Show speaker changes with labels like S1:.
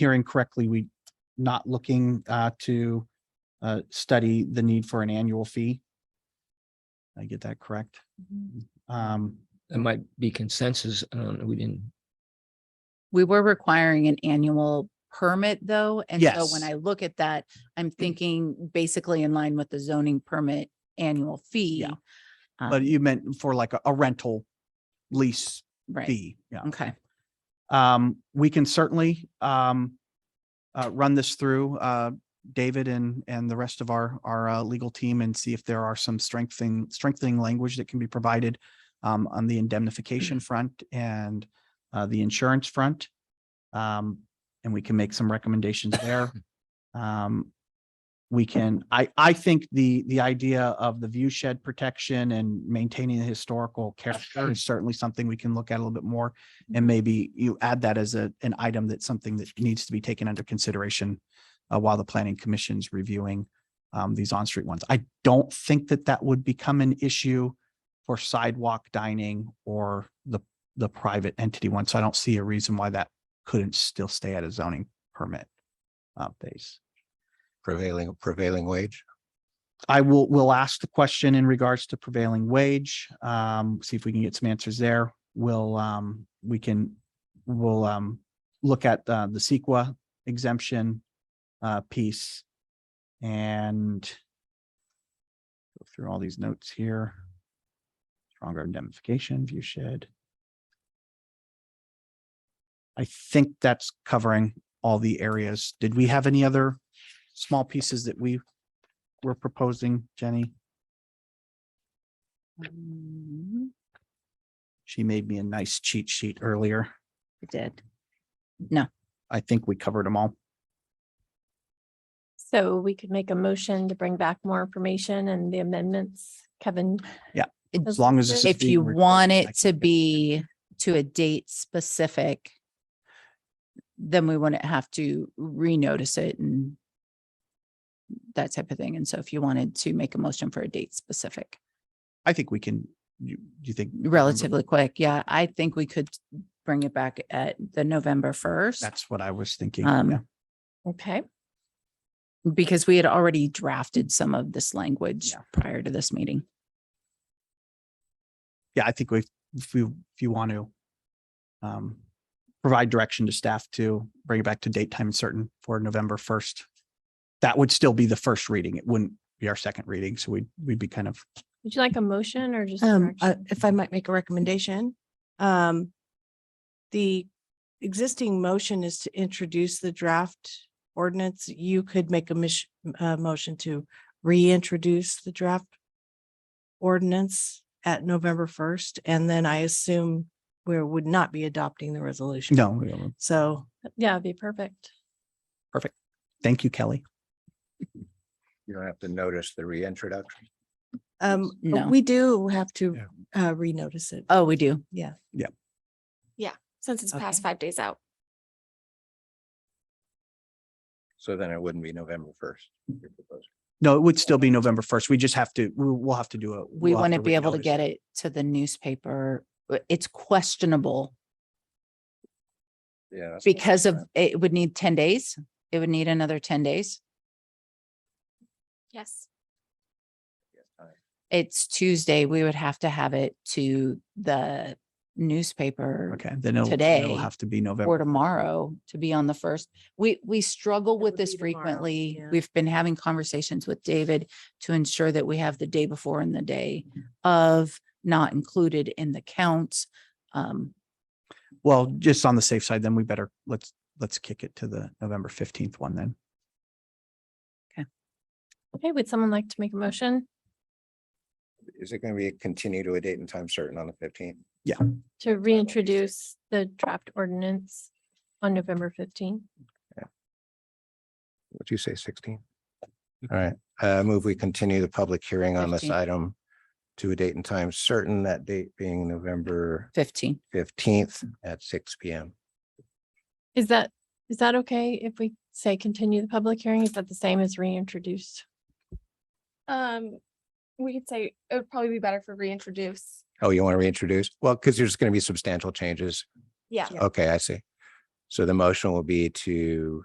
S1: hearing correctly, we not looking uh, to uh, study the need for an annual fee. Did I get that correct. Um,
S2: It might be consensus. I don't know. We didn't.
S3: We were requiring an annual permit though, and so when
S1: Yes. Mm-hmm.
S3: I look at that, I'm thinking basically in line with the zoning permit annual fee. Um,
S1: But you meant for like a- a rental lease
S3: Right, Mm-hmm.
S1: fee, yeah.
S3: okay,
S1: Um, we can certainly, um, uh, run this through, uh, David and, and the rest of our, our, uh, legal team and see if there are some strengthening, strengthening language that can be provided, um, on the indemnification front and, uh, the insurance front. Um, and we can make some recommendations there. Um, we can, I, I think the, the idea of the view shed protection and maintaining the historical character is certainly something we can look at a little bit more. And maybe you add that as a, an item that's something that needs to be taken under consideration uh, while the planning commission's reviewing um, these on-street ones. I don't think that that would become an issue for sidewalk dining or the, the private entity one. So I don't see a reason why that couldn't still stay at a zoning permit uh, base.
S4: prevailing, prevailing wage.
S1: I will, will ask the question in regards to prevailing wage, um, see if we can get some answers there. We'll, um, we can, we'll, um, look at, uh, the Sequa exemption, uh, piece. And go through all these notes here. Stronger indemnification, view shed. I think that's covering all the areas. Did we have any other small pieces that we we're proposing, Jenny.
S3: Um,
S1: She made me a nice cheat sheet earlier.
S3: I did.
S1: I think we covered them all.
S5: So we could make a motion to bring back more information and the amendments. Kevin,
S1: As long as. this is
S3: If
S1: being
S3: you
S1: recorded,
S3: want
S1: I
S3: it to
S1: can get
S3: be to a date specific, then we wouldn't have to renotice it and that type of thing. And so if you wanted to make a motion for a date specific,
S1: I think we can, you, you think?
S3: relatively quick, yeah, I think we could bring it back at the November first.
S1: That's what I was thinking.
S3: Um,
S1: yeah.
S5: okay,
S3: Because we had already drafted some of this language
S1: Yeah.
S3: prior to this meeting.
S1: Yeah, I think we, if you, if you want to um, provide direction to staff to bring it back to date, time and certain for November first. That would still be the first reading. It wouldn't be our second reading. So we'd, we'd be kind of,
S5: would you like a motion or just?
S6: Um, uh,
S5: direction?
S6: if I might make a recommendation, um, the existing motion is to introduce the draft ordinance. You could make a mission, uh, motion to reintroduce the draft ordinance at November first, and then I assume we would not be adopting the resolution.
S1: no, we don't.
S6: So
S5: Yeah, it'd be perfect.
S1: thank you, Kelly.
S4: You don't have to notice the reintroduction.
S6: um, but
S3: No.
S6: we do have to uh, renotice it.
S3: Oh, we do.
S6: Yeah.
S7: Since it's past
S6: Okay.
S7: five days out.
S4: So then it wouldn't be November first.
S1: No, it would still be November first. We just have to, we'll, we'll have to do a.
S3: We
S1: we'll have
S3: wouldn't be able to
S1: renotice.
S3: get it to the newspaper. Uh, It's questionable
S4: Yeah. that's what I'm
S3: because of,
S4: saying.
S3: it would need ten days. It would need another ten days.
S7: Yes.
S3: It's Tuesday. We would have to have it to the newspaper
S1: Okay, then it'll,
S3: today
S1: it'll have to be
S3: or
S1: November.
S3: tomorrow to be on the first. We, we struggle
S6: That
S3: with
S6: would
S3: this
S6: be tomorrow,
S3: frequently.
S6: yeah.
S3: We've been having conversations with David to ensure that we have the day before and the day of not included in the counts. Um,
S1: Well, just on the safe side, then we better, let's, let's kick it to the November fifteenth one then.
S5: Okay, would someone like to make a motion
S4: Is it going to be continue to a date and time certain on the fifteenth?
S5: to reintroduce the draft ordinance on November fifteenth?
S4: What'd you say, sixteen? All right, uh, move, we continue the public hearing on this
S3: 15.
S4: item to a date and time certain, that date being November
S3: fifteen.
S4: fifteenth at six P M.
S5: Is that, is that okay if we say continue the public hearing? Is that the same as reintroduced?
S7: Um, we could say it would probably be better for reintroduce.
S4: Oh, you want to reintroduce? Well, because there's going to be substantial changes.
S7: Yeah.
S4: Okay, I see. So the motion will be to